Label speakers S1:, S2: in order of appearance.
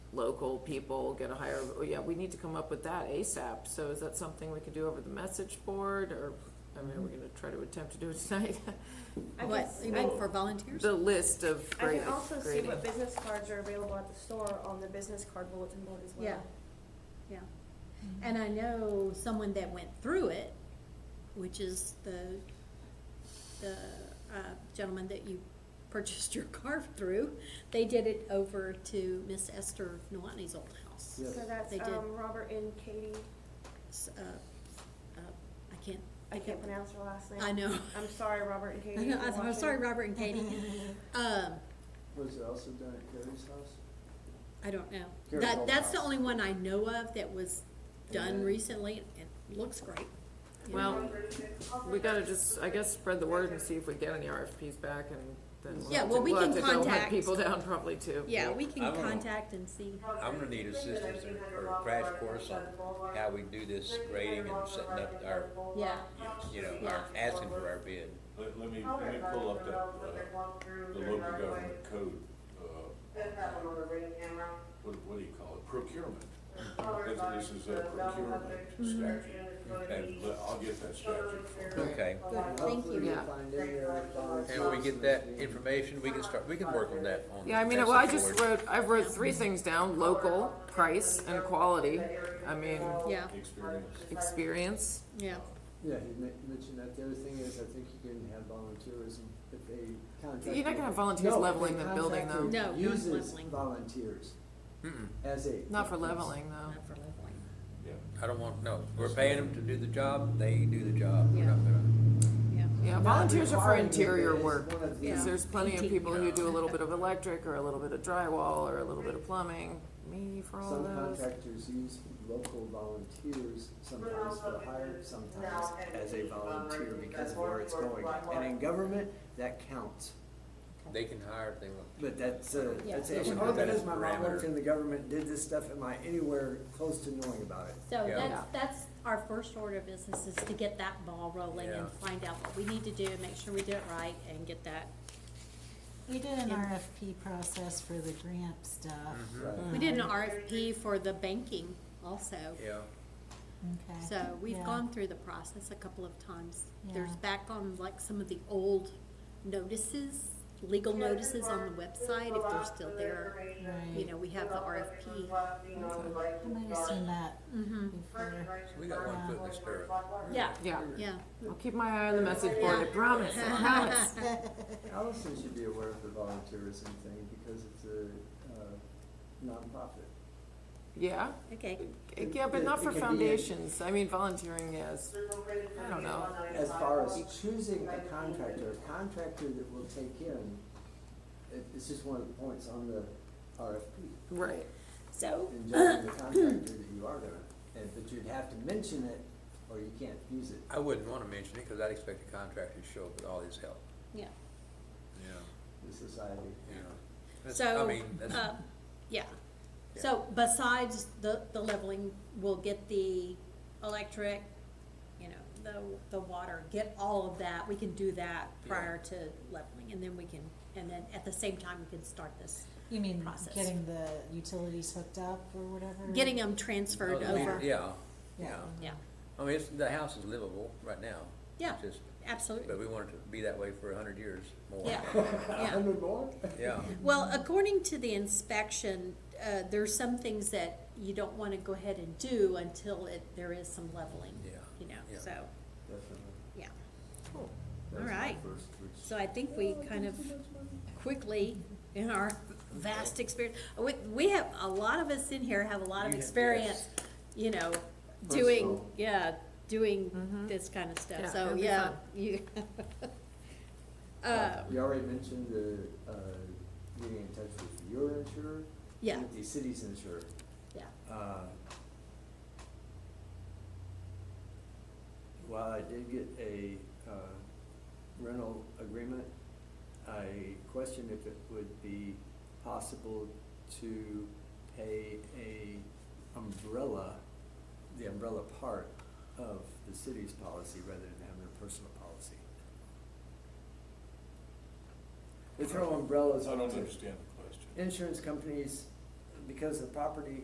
S1: local people get a higher, oh, yeah, we need to come up with that ASAP. So is that something we could do over the message board or, I mean, we're gonna try to attempt to do it tonight?
S2: I can,
S3: What,
S2: s-
S3: you
S2: I-
S3: mean for volunteers?
S1: The list of
S2: I
S1: grade,
S2: can also see
S1: grading.
S2: what business cards are available at the store on the business card bulletin board as well.
S3: Yeah, yeah. And I know someone that went through it, which is the, the uh, gentleman that you purchased your car through. They did it over to Miss Esther Nawani's old house.
S4: Yes.
S2: So that's,
S3: They did.
S2: um, Robert and Katie,
S3: S- uh, uh, I can't.
S2: I
S3: think
S2: can't
S3: of-
S2: pronounce her last name.
S3: I know.
S2: I'm sorry, Robert and
S3: I
S2: Katie.
S3: know,
S2: if you're
S3: I'm sorry,
S2: watching.
S3: Robert and Katie. Um,
S4: Was it also done at Gary's house?
S3: I don't know.
S4: Gary's
S3: That,
S4: old
S3: that's the
S4: house.
S3: only one I know of that was done
S4: Yeah.
S3: recently. It looks great. you know.
S1: Well, we gotta just, I guess, spread the word and see if we get any RFPs back and then we'll
S3: Yeah,
S1: have to,
S3: well, we
S1: we'll have
S3: can
S1: to go hunt
S3: contact-
S1: people down probably too.
S3: Yeah, we can
S5: I don't know.
S3: contact and see.
S5: I'm gonna need assistance in- or a crash course on how we do this grading and setting up our,
S3: Yeah.
S5: you know, our, asking for our bid.
S6: Let, let me, let me pull up that, uh, the local government code, uh, what, what do you call it, procurement. This, this is a procurement statute, and le- I'll get that statute. for you.
S5: Okay.
S3: Good, thank
S4: Hopefully
S3: you.
S4: we
S1: Yeah.
S4: find any other volunteers
S5: And we get that
S4: this year.
S5: information, we can start, we can work on that on.
S1: Yeah, I mean,
S5: the
S1: well, I
S5: message
S1: just
S5: board.
S1: wrote, I wrote three things down, local, price, and quality. I mean,
S3: Yeah,
S6: Experience.
S1: experience.
S3: yeah,
S4: Yeah, he men- mentioned that. The other thing is, I think you can have volunteerism if they contact.
S1: You're not gonna have volunteers
S4: No, if
S1: leveling
S4: they
S1: the building
S4: contact
S1: though.
S4: who
S3: No, not
S4: Uses
S3: leveling.
S4: volunteers
S5: Mm-mm,
S4: as a.
S1: Not for leveling though.
S3: Oh, not for leveling.
S6: Yeah.
S5: I don't want, no, we're paying them to do the job, they do the job. We're
S3: Yeah.
S5: not gonna-
S3: Yeah,
S1: Yeah,
S4: Not
S1: volunteers are for
S4: requiring it, but
S1: interior
S4: it's
S1: work.
S4: one of the-
S1: Because
S3: Yeah.
S1: there's plenty of
S3: Painting.
S1: people who do a little bit of electric or a little bit of drywall or a little bit of plumbing. Me for all
S4: Some
S1: those.
S4: contractors use local volunteers sometimes for hire, sometimes as a volunteer because of where it's going. And in government, that counts.
S5: They can hire if they want.
S4: But that's, uh,
S3: Yeah.
S4: that's,
S5: Yeah.
S4: it. all that is, my mom worked
S5: Parameter.
S4: in the government, did this stuff, am I anywhere close to knowing about it?
S3: so
S5: Yeah.
S3: that's, that's our first order of business is to get that ball rolling
S5: Yeah.
S3: and find out what we need to do, make sure we do it right and get that.
S7: We did an
S3: In-
S7: RFP process for the grant stuff,
S4: Mm-hmm.
S5: Mm-hmm.
S3: We did an RFP for the banking also.
S5: Yeah,
S7: okay.
S3: So we've
S7: Yeah.
S3: gone through the process a couple of times. There's
S7: Yeah.
S3: back on like some of the old notices, legal notices on the website, if they're still there. You
S7: Right,
S3: know, we have the RFP.
S7: I might have seen that
S3: Mm-hmm,
S7: before.
S5: so we got one foot in the stirrup.
S3: yeah,
S1: Yeah,
S3: yeah.
S1: I'll keep my eye on the message board, I promise, I promise.
S4: Allison should be aware of the volunteerism thing because it's a, uh, nonprofit.
S1: Yeah,
S3: Okay,
S1: yeah, but
S4: It-
S1: not
S4: it
S1: for
S4: could be a-
S1: foundations. I mean, volunteering, yes. I don't know.
S4: As far as choosing a contractor, a contractor that will take in, it, it's just one of the points on the RFP.
S1: Right.
S3: so,
S4: And judging the contractor that you are gonna, and, but you'd have to mention it or you can't use it.
S5: I wouldn't wanna mention it, cause I'd expect the contractor to show up with all his help,
S3: yeah.
S5: you know,
S4: the society.
S5: you know. That's- I
S3: So,
S5: mean, that's.
S3: uh, yeah. So besides the, the leveling, we'll get the electric, you know, the, the water, get all of that. We can do that prior to leveling and then we can, and then at the same time, we can start this.
S7: You mean
S3: Process.
S7: getting the utilities hooked up or whatever?
S3: Getting them transferred
S5: Oh,
S3: over.
S5: Yeah, yeah.
S7: Yeah.
S3: Yeah,
S5: I mean, it's, the house is livable right now.
S3: Yeah.
S5: It's Just, but
S3: absolutely.
S5: we want it to be that way for a hundred years more.
S3: Yeah, yeah.
S4: Hundred more?
S5: Yeah,
S3: Well, according to the inspection, uh, there's some things that you don't wanna go ahead and do until it, there is some leveling,
S5: Yeah,
S3: you know,
S5: yeah.
S3: so,
S4: Definitely.
S3: yeah.
S4: That's
S3: All
S4: my
S3: right.
S4: first wish.
S3: So I think we kind of quickly, in our vast experience, we, we have, a lot of us in here have a lot of
S5: You have-
S3: experience, you know, doing,
S4: Personal.
S3: yeah, doing this kind of
S1: Mm-hmm. Yeah,
S3: stuff, so,
S1: it'll be
S3: yeah,
S1: fun.
S3: you.
S4: Uh,
S3: Uh,
S4: You already mentioned the, uh, getting in touch with your insurer.
S3: Yeah.
S4: With the city's insurer.
S3: yeah,
S4: Uh, While I did get a uh, rental agreement, I questioned if it would be possible to pay a umbrella, the umbrella part of the city's policy rather than having a personal policy. They throw umbrellas
S6: I don't
S4: onto-
S6: understand the question.
S4: insurance companies, because the property